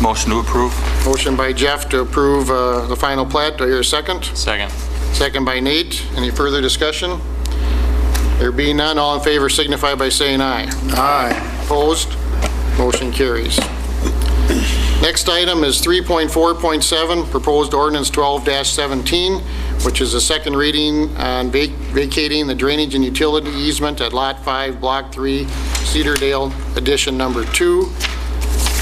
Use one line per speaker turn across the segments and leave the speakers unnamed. Motion to approve?
Motion by Jeff to approve uh, the final plat. Do I hear a second?
Second.
Second by Nate. Any further discussion? There being none, all in favor signify by saying aye. Aye. Opposed? Motion carries. Next item is 3.4.7, Proposed Ordinance 12-17, which is a second reading on vac- vacating the drainage and utility easement at Lot 5, Block 3, Cedardale Addition Number 2.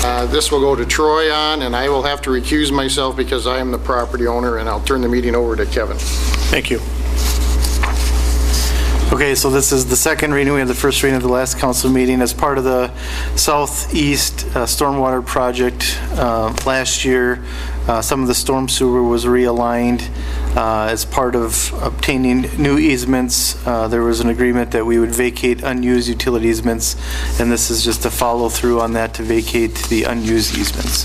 Uh, This will go to Troy on, and I will have to recuse myself because I am the property owner, and I'll turn the meeting over to Kevin.
Thank you. Okay, so this is the second reading. We had the first reading at the last council meeting as part of the southeast uh, stormwater project uh, last year. uh, Some of the storm sewer was realigned uh, as part of obtaining new easements. Uh, There was an agreement that we would vacate unused utility easements, and this is just a follow-through on that to vacate the unused easements.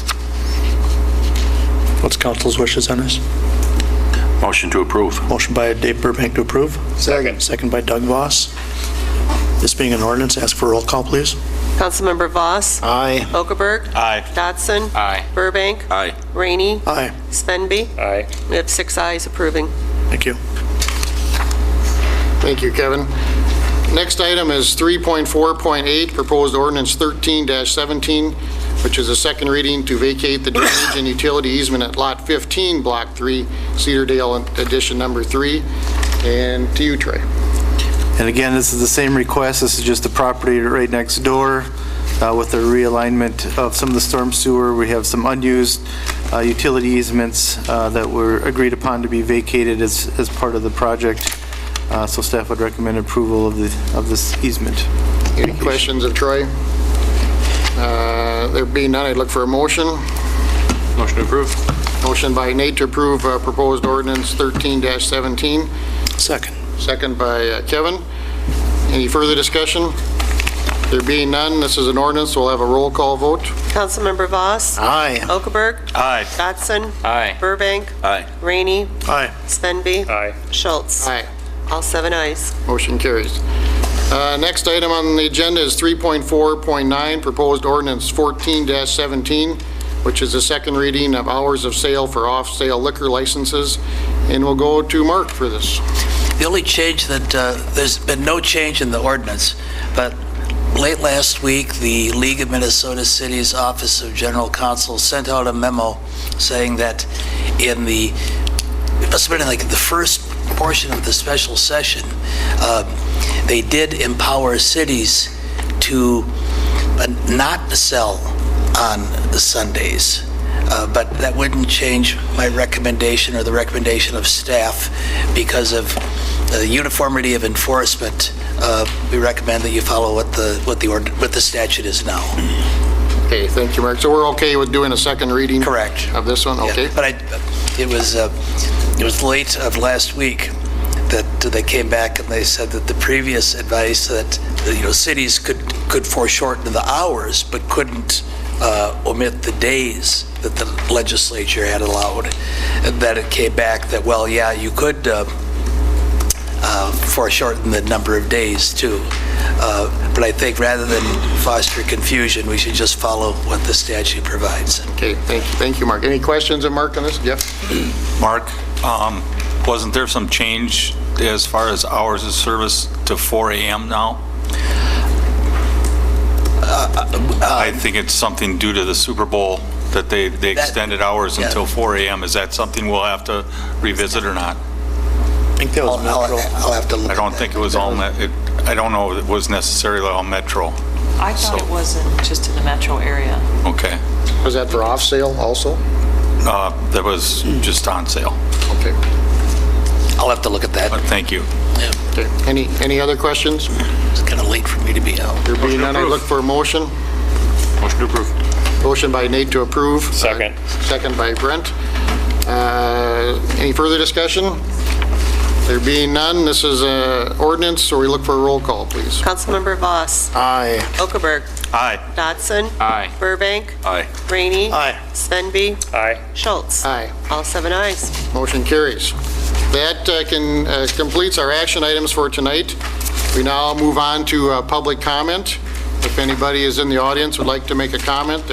What's council's wishes on this?
Motion to approve.
Motion by Dave Burbank to approve,
Second.
second by Doug Voss. This being an ordinance, ask for roll call, please.
Councilmember Voss.
Aye.
Okaberg.
Aye.
Dotson.
Aye.
Burbank.
Aye.
Rainey.
Aye,
Svenby.
Aye.
We have six ayes approving.
thank you.
Thank you, Kevin. Next item is 3.4.8, Proposed Ordinance 13-17, which is a second reading to vacate the drainage and utility easement at Lot 15, Block 3, Cedardale Edition Number 3. And to you, Troy.
And again, this is the same request, this is just the property right next door uh, with the realignment of some of the storm sewer. We have some unused uh, utility easements uh, that were agreed upon to be vacated as, as part of the project. Uh, So staff would recommend approval of the, of this easement.
Any questions of Troy? Uh, There being none, I'd look for a motion.
Motion to approve?
Motion by Nate to approve uh, proposed ordinance 13-17,
Second.
second by uh, Kevin. Any further discussion? There being none, this is an ordinance, we'll have a roll call vote.
Councilmember Voss.
Aye.
Okaberg.
Aye.
Dotson.
Aye.
Burbank.
Aye.
Rainey.
Aye.
Svenby.
Aye.
Schultz.
Aye.
All seven ayes.
Motion carries. Uh, Next item on the agenda is 3.4.9, proposed ordinance 14-17, which is the second reading of hours of sale for off-sale liquor licenses, and we'll go to Mark for this.
The only change that, uh, there's been no change in the ordinance, but late last week, the League of Minnesota Cities Office of General Counsel sent out a memo saying that in the, it must have been in, like the first portion of the special session, uh, they did empower cities to uh, not sell on Sundays. Uh, But that wouldn't change my recommendation or the recommendation of staff because of the uniformity of enforcement. Uh, We recommend that you follow what the, what the, ord- what the statute is now.
Okay, thank you, Mark. So we're okay with doing a second reading?
Correct.
Of this one,
Yeah,
okay?
But I, it was, uh, it was late of last week that they came back and they said that the previous advice that, you know, cities could, could foreshorten the hours, but couldn't uh, omit the days that the legislature had allowed. And That it came back that, well, yeah, you could uh, uh, foreshorten the number of days too. Uh, But I think rather than foster confusion, we should just follow what the statute provides.
Okay, thank, thank you, Mark. Any questions of Mark on this? Jeff?
Mark, um, wasn't there some change as far as hours of service to 4 AM now?
Uh,
I think it's something due to the Super Bowl that they, they
That-
extended hours
Yeah.
until 4 AM. Is that something we'll have to revisit or not?
I think that
I'll,
was
I'll-
Metro.
I'll have to look.
I don't think it was all, met- it- I don't know if it was necessarily all Metro.
I thought
So-
it wasn't just in the metro area.
Okay.
Was that for off-sale also?
Uh, That was just on sale.
Okay.
I'll have to look at that.
But thank you.
Yeah,
Okay. Any, any other questions?
It's kind of late for me to be out.
There being none, I look for a motion.
Motion to approve?
Motion by Nate to approve.
Second.
Second by Brent. Uh, Any further discussion? There being none, this is a ordinance, so we look for a roll call, please.
Councilmember Voss.
Aye.
Okaberg.
Aye.
Dotson.
Aye.
Burbank.
Aye.
Rainey.
Aye.
Svenby.
Aye.
Schultz.
Aye.
All seven ayes.
Motion carries. That uh, can, uh, completes our action items for tonight. We now move on to uh, public comment. If anybody is in the audience would like to make a comment,